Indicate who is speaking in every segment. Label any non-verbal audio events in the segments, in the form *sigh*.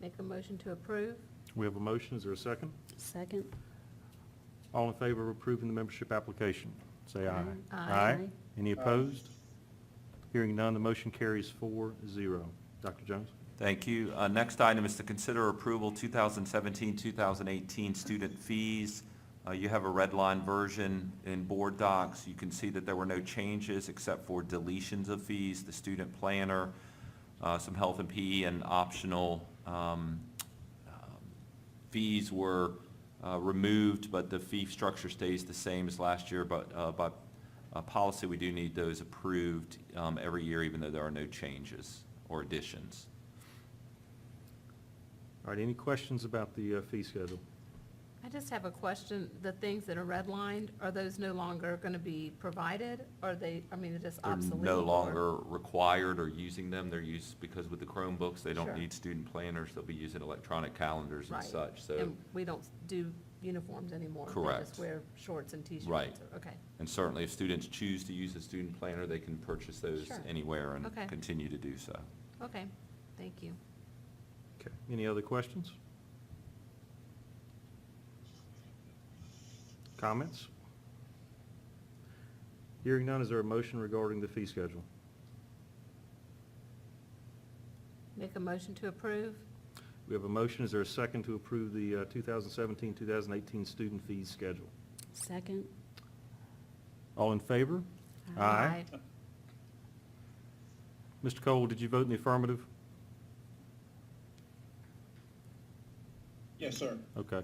Speaker 1: Make a motion to approve?
Speaker 2: We have a motion, is there a second?
Speaker 3: Second.
Speaker 2: All in favor of approving the membership application, say aye.
Speaker 1: Aye.
Speaker 3: Aye.
Speaker 2: Any opposed? Hearing none, the motion carries four zero. Dr. Jones?
Speaker 4: Thank you. Uh, Next item is to consider approval 2017-2018 student fees. Uh, You have a red line version in board docs. You can see that there were no changes except for deletions of fees, the student planner, uh, some health and PE, and optional um, um, fees were uh, removed, but the fee structure stays the same as last year, but uh, by uh, policy, we do need those approved um, every year, even though there are no changes or additions.
Speaker 2: All right, any questions about the uh, fee schedule?
Speaker 1: I just have a question. The things that are redlined, are those no longer going to be provided? Are they, I mean, they're just
Speaker 4: They're
Speaker 1: obsolete?
Speaker 4: no
Speaker 1: or-
Speaker 4: longer required or using them. They're used, because with the Chromebooks, they
Speaker 1: Sure.
Speaker 4: don't need student planners. They'll be using electronic calendars and
Speaker 1: Right.
Speaker 4: such, so,
Speaker 1: And we don't do uniforms anymore? We
Speaker 4: Correct.
Speaker 1: just wear shorts and T-shirts?
Speaker 4: Right.
Speaker 1: or- Okay,
Speaker 4: and certainly if students choose to use a student planner, they can purchase those
Speaker 1: Sure.
Speaker 4: anywhere and
Speaker 1: Okay.
Speaker 4: continue to do so.
Speaker 1: okay, thank you.
Speaker 2: Okay, any other questions? Comments? Hearing none, is there a motion regarding the fee schedule?
Speaker 1: Make a motion to approve?
Speaker 2: We have a motion, is there a second to approve the uh, 2017-2018 student fees schedule?
Speaker 3: Second.
Speaker 2: All in favor? Mr. Cole, did you vote in the affirmative?
Speaker 5: Yes, sir.
Speaker 2: Okay.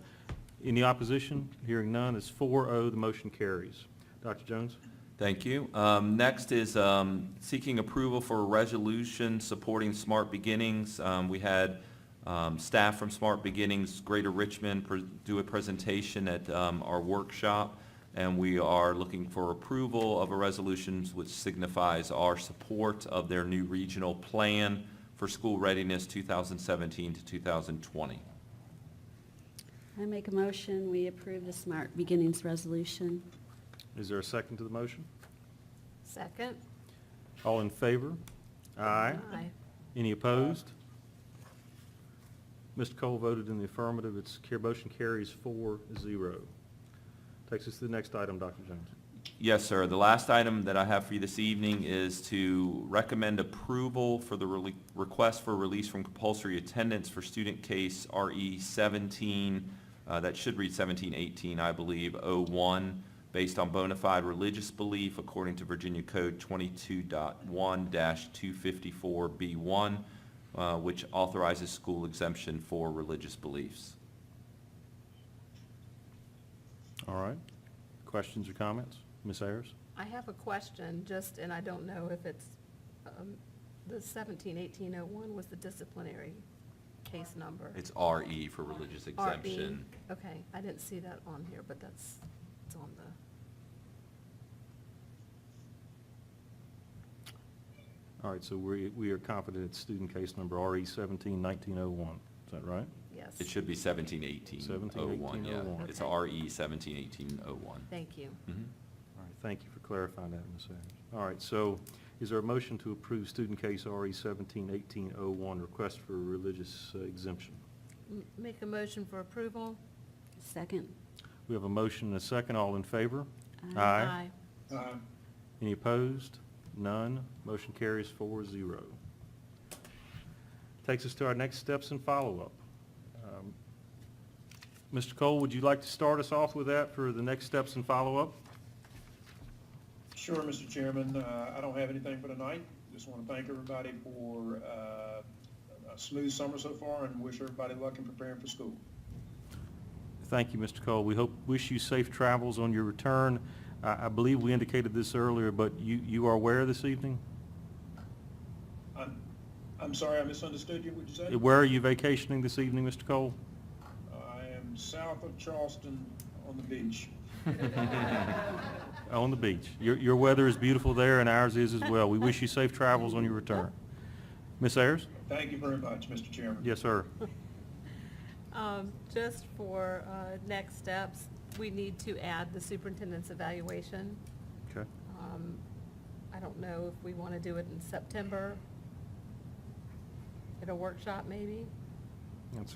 Speaker 2: Any opposition? Hearing none, it's 4-0, the motion carries. Dr. Jones?
Speaker 4: Thank you. Um, Next is um, seeking approval for a resolution supporting Smart Beginnings. Um, We had um, staff from Smart Beginnings Greater Richmond pre- do a presentation at um, our workshop, and we are looking for approval of a resolution which signifies our support of their new regional plan for school readiness 2017 to 2020.
Speaker 3: I make a motion, we approve the Smart Beginnings Resolution.
Speaker 2: Is there a second to the motion?
Speaker 1: Second?
Speaker 2: All in favor? Aye. Any opposed? Mr. Cole voted in the affirmative, its car- motion carries 4-0. Takes us to the next item, Dr. Jones.
Speaker 4: Yes, sir. The last item that I have for you this evening is to recommend approval for the rele- request for release from compulsory attendance for student case RE 17, uh, that should read 1718, I believe, 01, based on bona fide religious belief according to Virginia Code 22.1-254B1, uh, which authorizes school exemption for religious beliefs.
Speaker 2: All right. Questions or comments? Ms. Ayers?
Speaker 1: I have a question, just, and I don't know if it's, um, the seventeen eighteen oh one was the disciplinary case number.
Speaker 4: It's RE for religious
Speaker 1: RE.
Speaker 4: exemption.
Speaker 1: Okay, I didn't see that on here, but that's, it's on the,
Speaker 2: All right, so we we are confident it's student case number E RE 171901. Is that right?
Speaker 1: yes.
Speaker 4: It should be seventeen eighteen oh one, yeah.
Speaker 2: 1718.
Speaker 4: It's
Speaker 1: Okay.
Speaker 4: RE seventeen eighteen oh one. Mm-hmm.
Speaker 1: Thank you.
Speaker 2: All right, thank you for clarifying that, Ms. Ayers. All right, so is there a motion to approve student case E RE 171801, request for religious uh, exemption?
Speaker 1: M- Make a motion for approval?
Speaker 3: Second.
Speaker 2: We have a motion and a second. All in favor?
Speaker 3: Aye.
Speaker 5: Aye.
Speaker 2: Any opposed? None. Motion carries 4-0. Takes us to our next steps and follow-up. Um, Mr. Cole, would you like to start us off with that for the next steps and follow-up?
Speaker 5: Sure, Mr. Chairman, uh, I don't have anything for tonight. Just want to thank everybody for uh, a smooth summer so far and wish everybody luck in preparing for school.
Speaker 2: Thank you, Mr. Cole. We hope, wish you safe travels on your return. I I believe we indicated this earlier, but you you are where this evening?
Speaker 5: I'm, I'm sorry, I misunderstood you, what'd you say?
Speaker 2: Where are you vacationing this evening, Mr. Cole?
Speaker 5: I am south of Charleston on the beach.
Speaker 4: *laughs*
Speaker 2: On the beach. Your, your weather is beautiful there, and ours is as well. We wish you safe travels on your return. Ms. Ayers?
Speaker 5: Thank you very much, Mr. Chairman.
Speaker 2: Yes, sir.
Speaker 1: Um, Just for uh, next steps, we need to add the superintendent's evaluation.
Speaker 2: Okay.
Speaker 1: Um, I don't know if we want to do it in September, at a workshop maybe?